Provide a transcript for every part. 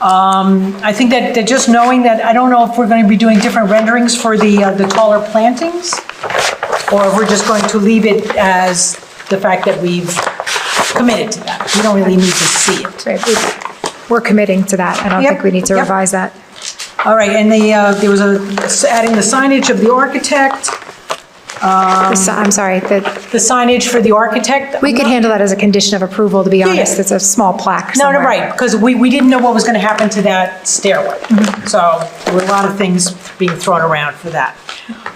Um, I think that, that just knowing that, I don't know if we're going to be doing different renderings for the, uh, the taller plantings, or if we're just going to leave it as the fact that we've committed to that. We don't really need to see it. Right, we- We're committing to that. I don't think Yep, we need to yep. revise that. All right, and the, uh, there was a, adding the signage of the architect, Um, The si- I'm sorry, that, the signage for the architect. we could handle that as a condition of approval, to be honest. yeah. It's a small plaque No, no, somewhere. right, because we, we didn't know what was going to happen to that stairway. Mm-hmm. So there were a lot of things being thrown around for that.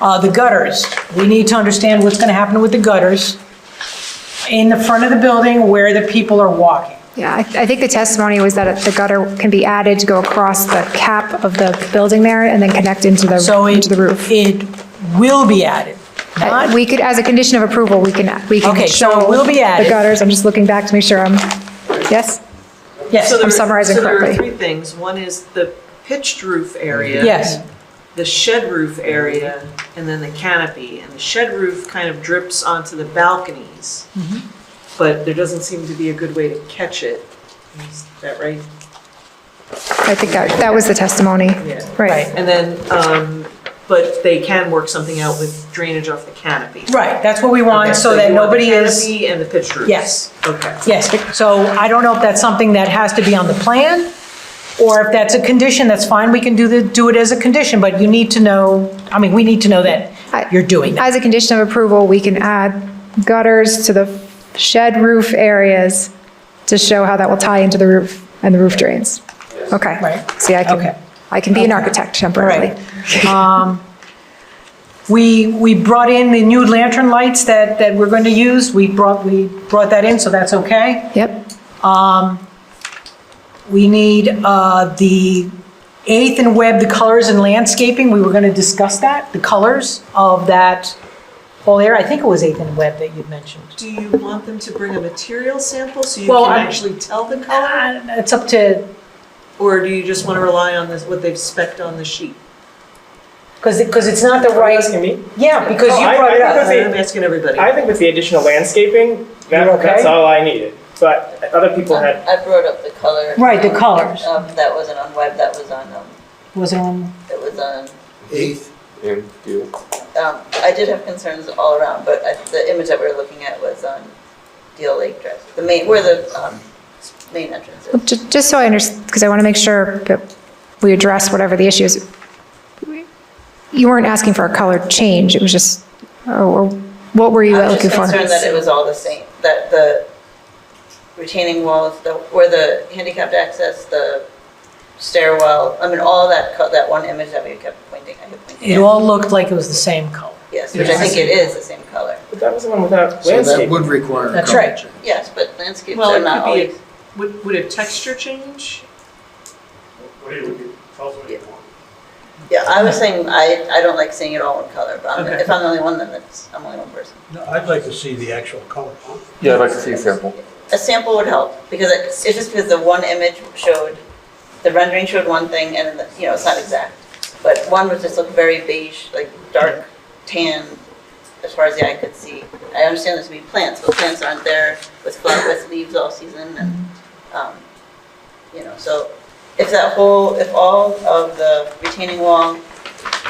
Uh, The gutters, we need to understand what's going to happen with the gutters in the front of the building where the people are walking. Yeah, I, I think the testimony was that the gutter can be added to go across the cap of the building there and then connect into So the, it, into the roof. it will be added, not, We could, as a condition of approval, we can, we can Okay, so it show will be added. The gutters, I'm just looking back to make sure I'm, yes? yes, So there- summarizing So there correctly. are three things. One is the pitched roof area. yes. The shed roof area, and then the canopy. And the shed roof kind of drips onto the balconies, Mm-hmm. but there doesn't seem to be a good way to catch it. Is that right? I think that, that was the testimony. Yeah. Right. And then, um, but they can work something out with drainage off the canopy. Right, that's what we Okay, want, so that you want the nobody is, Canopy and the pitched roof. yes, Okay. yes. So I don't know if that's something that has to be on the plan, or if that's a condition, that's fine, we can do the, do it as a condition, but you need to know, I mean, we need to know I- that you're doing that. As a condition of approval, we can add gutters to the shed roof areas to show how that will tie into the roof and the roof drains. Okay. Right. See, I Okay. can, I can be an architect temporarily. We, we brought in the new lantern lights that, that we're going to use, we brought, we brought that in, so that's okay. Yep, We need uh, the eighth and web, the colors and landscaping, we were going to discuss that, the colors of that whole area, I think it was eighth and web that you mentioned. Do you want them to bring a material sample so you Well, can I'm- actually tell the color? Uh, It's up to, Or do you just want to rely on this, what they've specced on the sheet? because, because it's not the right. asking me? Yeah, because Oh, you I- brought I it think up. that's it. I'm asking everybody. I think with the additional landscaping, that, You're okay? that's all I needed. But other people had, Um, I brought up the color. Right, the colors. Um, that wasn't on web, that was on, um, Was it on? that was on, Eighth. And you. um, I did have concerns all around, but I, the image that we were looking at was on Deal Lake Drive, the main, where the, um, main entrance is. Well, ju- just so I understand, because I want to make sure that we address whatever the issue is. You weren't asking for a color change, it was just, or what were you I'm just looking for? concerned that it was all the same, that the retaining wall, is the, where the handicapped access, the stairwell, I mean, all that, co- that one image that we kept pointing, I kept pointing It at. all looked like it was the same color. Yes, which I think it is the same color. but that was the one without So that landscaping. would require a That's color right. change. Yes, but landscapes Well, are it not could be, always. a- would, would a texture change? What do you, what do you- tell us what you want. Yeah, I was saying, I, I don't like seeing it all in color, but I'm- Okay. if I'm the only one, then it's, I'm the only one person. No, I'd like to see the actual color. Yeah, I'd like to see a sample. A sample would help, because it- it's just because the one image showed, the rendering showed one thing, and, the- you know, it's not exact. But one was just looked very beige, like dark tan, as far as the eye could see. I understand there's to be plants, but plants aren't there with flower, with leaves all season, and, um, you know, so if that whole, if all of the retaining wall,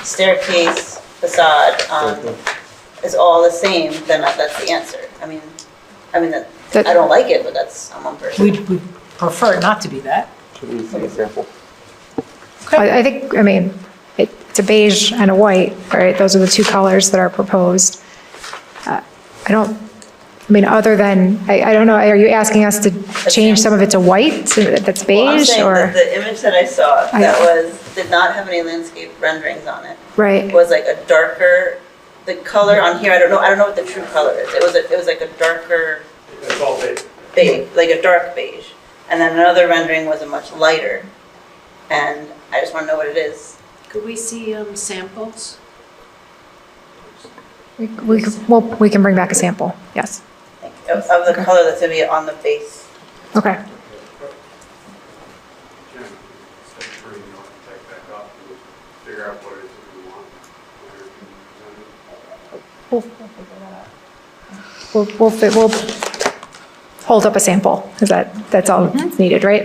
staircase, facade, um, is all the same, then that- that's the answer. I mean, I mean, that- That- I don't like it, but that's, I'm one person. We'd we'd prefer it not to be that. Should we see a sample? I I think, I mean, it- it's a beige and a white, right? Those are the two colors that are proposed. Uh, I don't, I mean, other than, I I don't know, are you asking us to change some of it to white so that- that's Well, I'm beige saying or? that The image that I saw I- that was, did not have any landscape renderings on it, Right, was like a darker, the color on here, I don't know, I don't know what the true color is. It was, a- it was like a darker It's all big. beige, like a dark beige. And then another rendering was a much lighter. And I just want to know what it is. Could we see um, samples? we, we could- well, we can bring back a sample, yes. like, Of of the color that's going to be on the base Okay, Jim, instead of bringing the architect back up, we'll figure out what it is that we want. where we can design we'll, we'll, fi- we'll hold up a sample, is that, that's all that's needed, right?